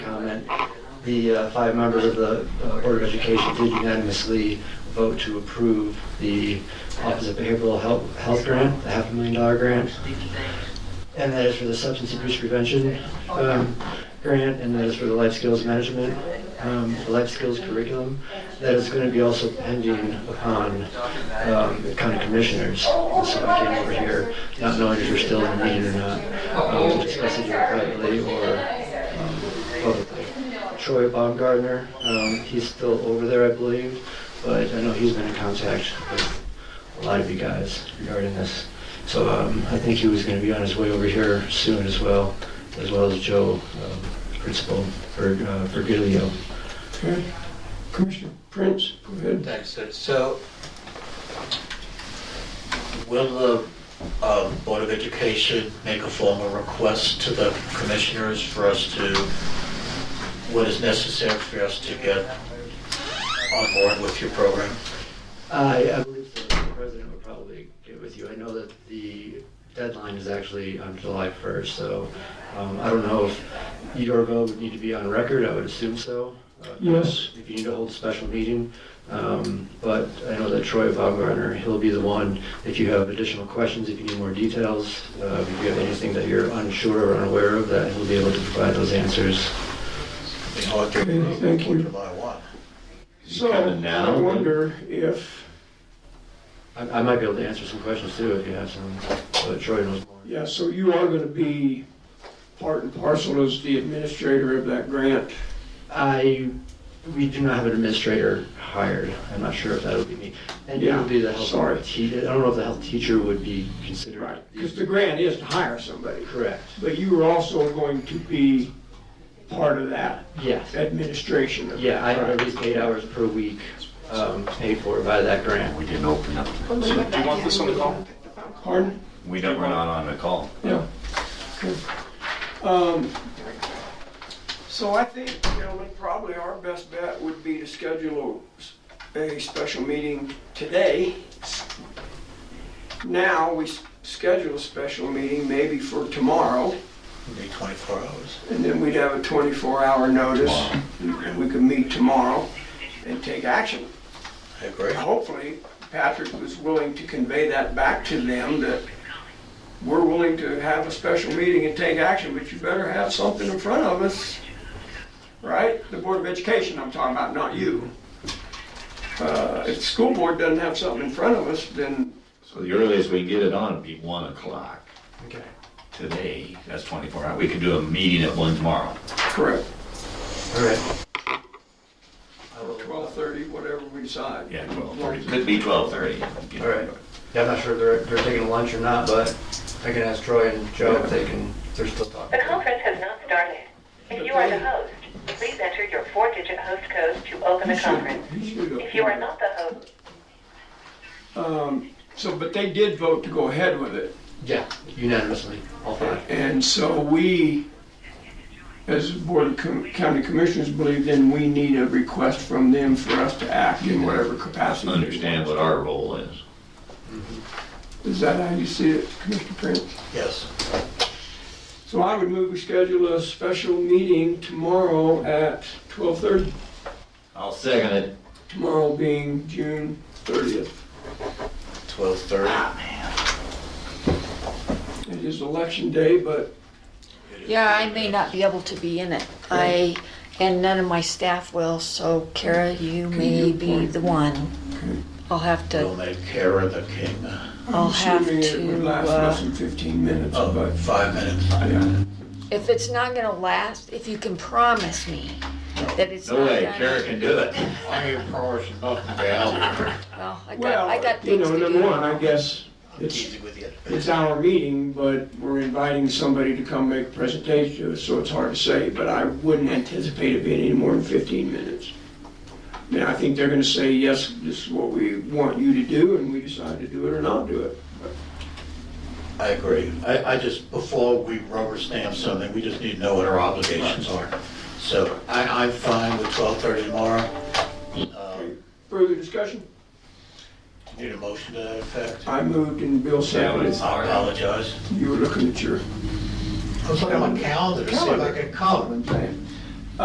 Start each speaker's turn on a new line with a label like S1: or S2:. S1: and the uh, five members of the uh, Board of Education did unanimously vote to approve the Office of Behavioral Health Health Grant, the half a million dollar grant. And that is for the substance abuse prevention um, grant, and that is for the life skills management, um, the life skills curriculum. That is going to be also pending upon um, the county commissioners. And So I came over here, not knowing if you're still in need or not, um, to discuss it either privately or um, publicly. Troy Baumgartner, um, he's still over there, I believe, but I know he's been in contact with a lot of you guys regarding this. So um, I think he was going to be on his way over here soon as well, as well as Joe, um, principal for uh, for Giglio.
S2: Okay. Commissioner Prince, go ahead.
S3: Thanks, sir. So, will the uh, Board of Education make a formal request to the commissioners for us to, what is necessary for us to get on board with your program?
S1: I, I believe the president would probably get with you. I know that the deadline is actually on July 1st, so um, I don't know if your vote would need to be on record. I would assume so. Uh,
S2: Yes.
S1: If you need to hold a special meeting, um, but I know that Troy Baumgartner, he'll be the one. If you have additional questions, if you need more details, uh, if you have anything that you're unsure or unaware of, that he'll be able to provide those answers.
S3: We know it
S2: Okay,
S3: can
S2: thank you.
S3: July 1.
S2: So,
S4: kinda now,
S2: I
S4: then?
S2: wonder if,
S1: I, I might be able to answer some questions too if you have some, but Troy knows more.
S2: yeah, so you are gonna be part and parcel as the administrator of that grant.
S1: I, we do not have an administrator hired. I'm not sure if that would be me. And it
S2: Yeah,
S1: would be the health
S2: sorry.
S1: teacher. I don't know if the health teacher would be considered.
S2: Because the grant is to hire somebody,
S1: Correct.
S2: but you are also going to be part of that
S1: Yes.
S2: administration. of that
S1: Yeah, I have
S2: grant.
S1: at least eight hours per week um, paid for by that grant.
S4: We didn't open up.
S5: Do you want this on the call?
S2: Pardon?
S4: We don't, we're not on the call.
S2: Yeah. Okay. Um, So I think, gentlemen, probably our best bet would be to schedule a, a special meeting today. Now, we s- schedule a special meeting maybe for tomorrow,
S3: It'll be 24 hours.
S2: and then we'd have a 24-hour notice. And we could meet tomorrow and take action.
S3: I agree.
S2: Hopefully, Patrick was willing to convey that back to them, that we're willing to have a special meeting and take action, but you better have something in front of us, right? The Board of Education I'm talking about, not you. Uh, If the school board doesn't have something in front of us, then,
S4: So the earliest we can get it on would be one o'clock
S2: okay,
S4: today. That's twenty-four hours. We could do a meeting at one tomorrow.
S2: correct,
S1: All right.
S3: I will-
S2: 12:30, whatever we decide.
S4: Yeah, twelve thirty. Could be twelve thirty. All
S1: right. Yeah, I'm not sure if they're, they're taking lunch or not, but I can ask Troy and Joe if they can, if they're still talking.
S6: The conference has not started. If you are the host, please enter your four-digit host code to open
S2: He
S6: the
S2: should-
S6: conference.
S2: he should have-
S6: If you are not the host,
S2: Um, So, but they did vote to go ahead with it.
S1: Yeah, unanimously, all five.
S2: And so we, as Board of Com- County Commissioners, believe then we need a request from them for us to act in whatever capacity.
S4: Understand what our role is.
S2: Is that how you see it, Commissioner Prince?
S3: Yes.
S2: So I would move we schedule a special meeting tomorrow at 12:30,
S4: I'll second it.
S2: tomorrow being June 30th.
S3: 12:30.
S2: It is election day, but
S5: Yeah, I may not be able to be in it. I, and none of my staff will, so Kara, you may be the one. I'll have
S3: We'll
S5: to,
S3: make Kara the king.
S5: I'll have
S2: assuming it would
S5: to,
S2: last less
S5: uh,
S2: than 15 minutes,
S3: Oh,
S2: but
S3: five minutes.
S2: yeah.
S5: if it's not gonna last, if you can promise me that it's
S4: No
S5: not
S4: way, Kara
S5: gonna.
S4: can do it.
S5: Well, I got, I
S2: Well,
S5: got
S2: you
S5: things
S2: know,
S5: to
S2: number one,
S5: do.
S2: I guess it's
S3: Easy with you.
S2: It's our meeting, but we're inviting somebody to come make a presentation, to us, so it's hard to say, but I wouldn't anticipate it being any more than 15 minutes. I mean, I think they're gonna say, yes, this is what we want you to do, and we decide to do it or not do it.
S3: I agree. I, I just, before we rubber stamp something, we just need to know what our obligations are. So I, I'm fine with 12:30 tomorrow. Um,
S2: Further discussion?
S3: Need a motion to that effect?
S2: I moved and Bill
S4: Yeah,
S2: seconded.
S4: but it's
S3: I
S4: our
S3: apologize.
S2: You were looking at your,
S3: I was looking at my calendar to see if I could come.
S2: okay,